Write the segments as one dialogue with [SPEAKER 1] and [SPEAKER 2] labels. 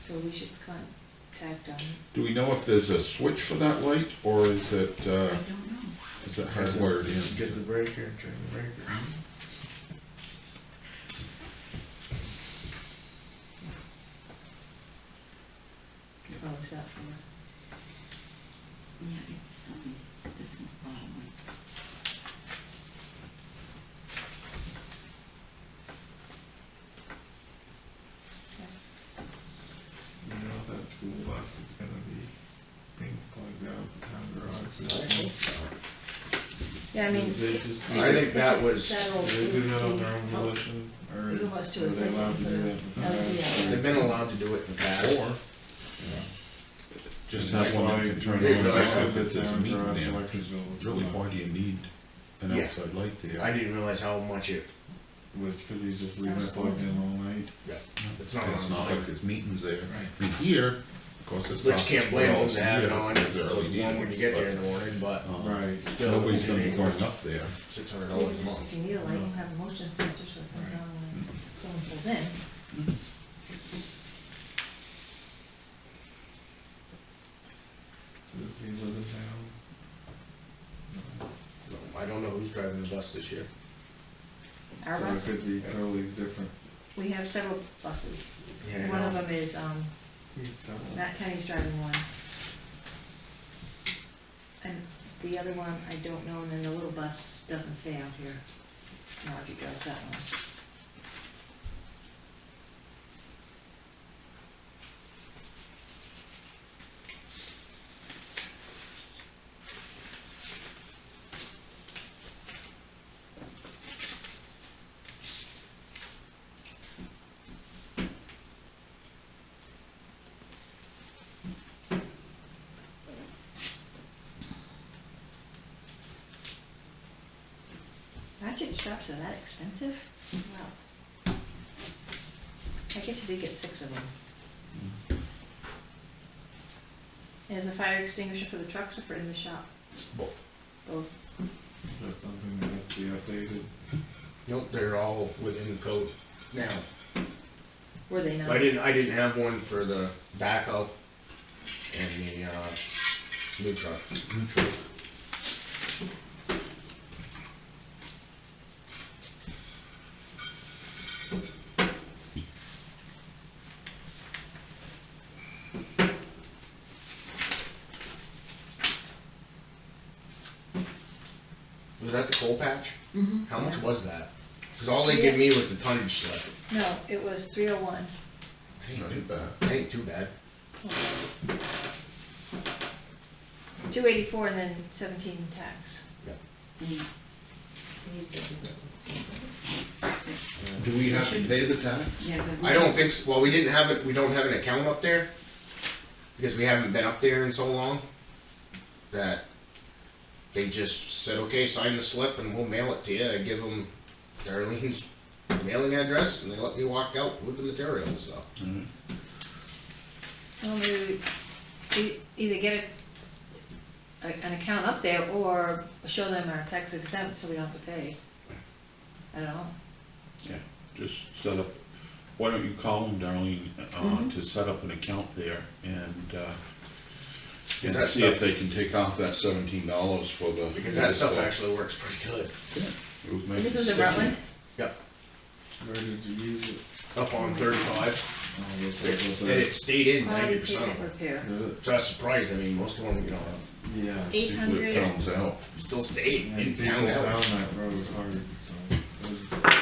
[SPEAKER 1] so we should contact them.
[SPEAKER 2] Do we know if there's a switch for that light, or is it,
[SPEAKER 1] I
[SPEAKER 2] uh,
[SPEAKER 1] don't know.
[SPEAKER 2] is it hardwired
[SPEAKER 3] Just
[SPEAKER 2] in?
[SPEAKER 3] Get the breaker, turn the breaker.
[SPEAKER 1] Oh, is that for?
[SPEAKER 4] Yeah, it's, um, this bottom one.
[SPEAKER 3] You know, if that school bus is gonna be being plugged out of the town
[SPEAKER 5] I
[SPEAKER 3] garage.
[SPEAKER 5] think so.
[SPEAKER 1] Yeah, I mean,
[SPEAKER 3] They just.
[SPEAKER 5] I think that was-
[SPEAKER 3] They do that on their own volition, or are
[SPEAKER 1] Who wants to
[SPEAKER 3] they
[SPEAKER 1] replace
[SPEAKER 3] allowed to
[SPEAKER 1] it
[SPEAKER 3] do that?
[SPEAKER 1] for
[SPEAKER 3] in the
[SPEAKER 1] the-
[SPEAKER 3] past?
[SPEAKER 1] LDL?
[SPEAKER 5] They've been allowed to do it in the past.
[SPEAKER 3] Or-
[SPEAKER 5] you know.
[SPEAKER 2] Just have one that can turn on,
[SPEAKER 5] Exactly.
[SPEAKER 2] just if it's a
[SPEAKER 3] Town
[SPEAKER 2] meat
[SPEAKER 3] garage
[SPEAKER 2] lamp.
[SPEAKER 3] electric bill is
[SPEAKER 2] Really,
[SPEAKER 3] not-
[SPEAKER 2] why do you need an
[SPEAKER 5] Yeah.
[SPEAKER 2] outside light
[SPEAKER 5] I
[SPEAKER 2] there?
[SPEAKER 5] didn't realize how much it,
[SPEAKER 3] Which, cause he's just leaving it plugged in all night.
[SPEAKER 5] yeah, it's not
[SPEAKER 2] It's not
[SPEAKER 5] on.
[SPEAKER 2] like there's meetings there.
[SPEAKER 3] Right.
[SPEAKER 2] And here, of course, it's.
[SPEAKER 5] Which can't blame them to have it on,
[SPEAKER 2] There's
[SPEAKER 5] so it's
[SPEAKER 2] LED
[SPEAKER 5] warm when you get there in
[SPEAKER 2] lights,
[SPEAKER 5] the morning, but
[SPEAKER 2] but, uh,
[SPEAKER 3] Right.
[SPEAKER 5] still.
[SPEAKER 2] Nobody's gonna be going up there.
[SPEAKER 5] Six hundred
[SPEAKER 1] maybe
[SPEAKER 5] dollars a
[SPEAKER 1] just
[SPEAKER 5] month.
[SPEAKER 1] if you need a light, you have a motion sensor so it comes on when someone pulls in.
[SPEAKER 3] Does he live in town? No.
[SPEAKER 5] I don't know who's driving the bus this year.
[SPEAKER 1] Our
[SPEAKER 3] So it
[SPEAKER 1] bus,
[SPEAKER 3] could be totally different.
[SPEAKER 1] we have several buses.
[SPEAKER 5] Yeah,
[SPEAKER 1] One
[SPEAKER 5] I
[SPEAKER 1] of
[SPEAKER 5] know.
[SPEAKER 1] them is, um,
[SPEAKER 3] He's so-
[SPEAKER 1] Matt Kenny's driving one. And the other one, I don't know, and then the little bus doesn't stay out here. Margie drives that one. Ratchet straps are that expensive? Wow. I guess you did get six of them. Mm-hmm. And Is the fire extinguisher for the trucks or for in the shop?
[SPEAKER 5] um,
[SPEAKER 2] Both.
[SPEAKER 1] Both.
[SPEAKER 3] Is that something that has to be updated?
[SPEAKER 5] Nope, they're all within the code now.
[SPEAKER 1] Were they not?
[SPEAKER 5] I didn't, I didn't have one for the backhoe and the, uh, new truck. Was that the coal patch?
[SPEAKER 1] Mhm.
[SPEAKER 5] How much was that? Cause all they gave me was the tonnage slip.
[SPEAKER 1] No, it was three oh one.
[SPEAKER 2] Not too bad.
[SPEAKER 5] Ain't too bad.
[SPEAKER 1] Two eighty-four and then seventeen in tax.
[SPEAKER 4] Mm. Here's the other one.
[SPEAKER 2] Do we have to pay the tax?
[SPEAKER 4] Yeah, but-
[SPEAKER 5] I don't think, s- well, we didn't have it, we don't have an account up there, because we haven't been up there in so long, that they just said, okay, sign the slip and we'll mail it to you, I give them Darlene's mailing address, and they let me walk out with the material and stuff.
[SPEAKER 2] Mhm.
[SPEAKER 1] Well, maybe we e- either get a, a- an account up there or show them our tax exempt so we don't have to pay. I don't know.
[SPEAKER 6] Yeah, just set up, why don't you call them, Darlene,
[SPEAKER 1] Mm-hmm.
[SPEAKER 6] uh, to set up an account there and, uh, and
[SPEAKER 5] that
[SPEAKER 6] see if
[SPEAKER 5] stuff-
[SPEAKER 6] they can take off that seventeen dollars for the.
[SPEAKER 5] Because that stuff actually works pretty good,
[SPEAKER 6] It would make
[SPEAKER 1] This
[SPEAKER 6] it
[SPEAKER 1] was in
[SPEAKER 6] sticky.
[SPEAKER 1] Rutland?
[SPEAKER 5] yep,
[SPEAKER 3] Where did you use it?
[SPEAKER 5] up on thirty-five,
[SPEAKER 3] Oh, I guess
[SPEAKER 5] and
[SPEAKER 3] that's what
[SPEAKER 5] it stayed in ninety
[SPEAKER 1] Quality
[SPEAKER 5] percent
[SPEAKER 1] pavement
[SPEAKER 5] of it.
[SPEAKER 1] repair.
[SPEAKER 3] that- Did it?
[SPEAKER 5] So I was surprised, I mean, most of them, you know,
[SPEAKER 3] Yeah.
[SPEAKER 1] Eight
[SPEAKER 3] she-
[SPEAKER 1] hundred.
[SPEAKER 6] It comes out.
[SPEAKER 5] still stayed,
[SPEAKER 3] And
[SPEAKER 5] didn't
[SPEAKER 3] people
[SPEAKER 5] sound
[SPEAKER 3] down
[SPEAKER 5] out.
[SPEAKER 3] that road hard, so it was-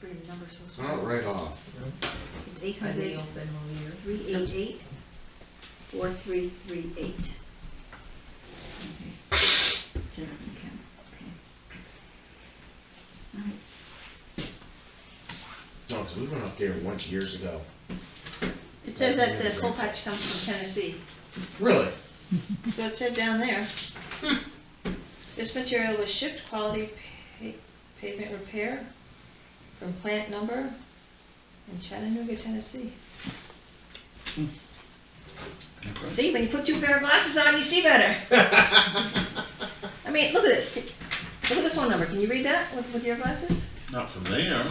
[SPEAKER 1] Bring the numbers so
[SPEAKER 5] Not right off.
[SPEAKER 1] It's eight hundred, three eight eight, four three three eight.
[SPEAKER 4] Set up an account, okay. All right,
[SPEAKER 5] No, because we went up there once years ago.
[SPEAKER 1] It says that the coal patch comes from Tennessee,
[SPEAKER 5] Really?
[SPEAKER 1] so it said down there. This material was shipped quality pa- pavement repair from plant number in Chattanooga, Tennessee. See, when you put two pair of glasses on, you see better. I mean, look at this, look at the phone number, can you read that with, with your glasses?
[SPEAKER 6] Not from there.